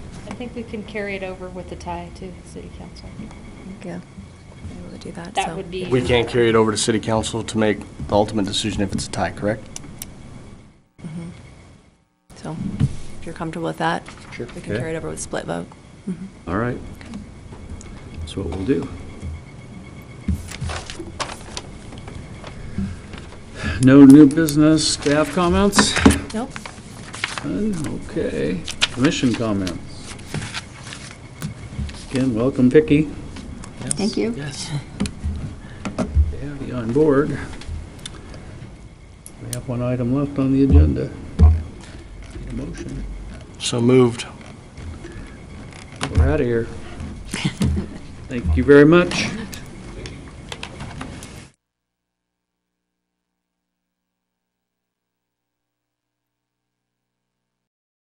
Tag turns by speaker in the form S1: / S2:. S1: think we can carry it over with the tie to city council.
S2: Yeah, able to do that.
S1: That
S2: so-
S1: would be-
S3: We can't carry it over to city council to make the ultimate decision if it's a tie, correct?
S2: Mhm. So if you're comfortable with that,
S3: Sure.
S2: we can
S4: Okay.
S2: carry it over with split vote. Mhm.
S4: All right. That's what we'll do. No new business, staff comments?
S2: Nope.
S4: None? Okay. Commission comments? Again, welcome, Vicky.
S5: Thank you.
S3: Yes.
S4: to have you on board. We have one item left on the agenda. Need a motion.
S3: So moved.
S4: We're out of here. Thank you very much.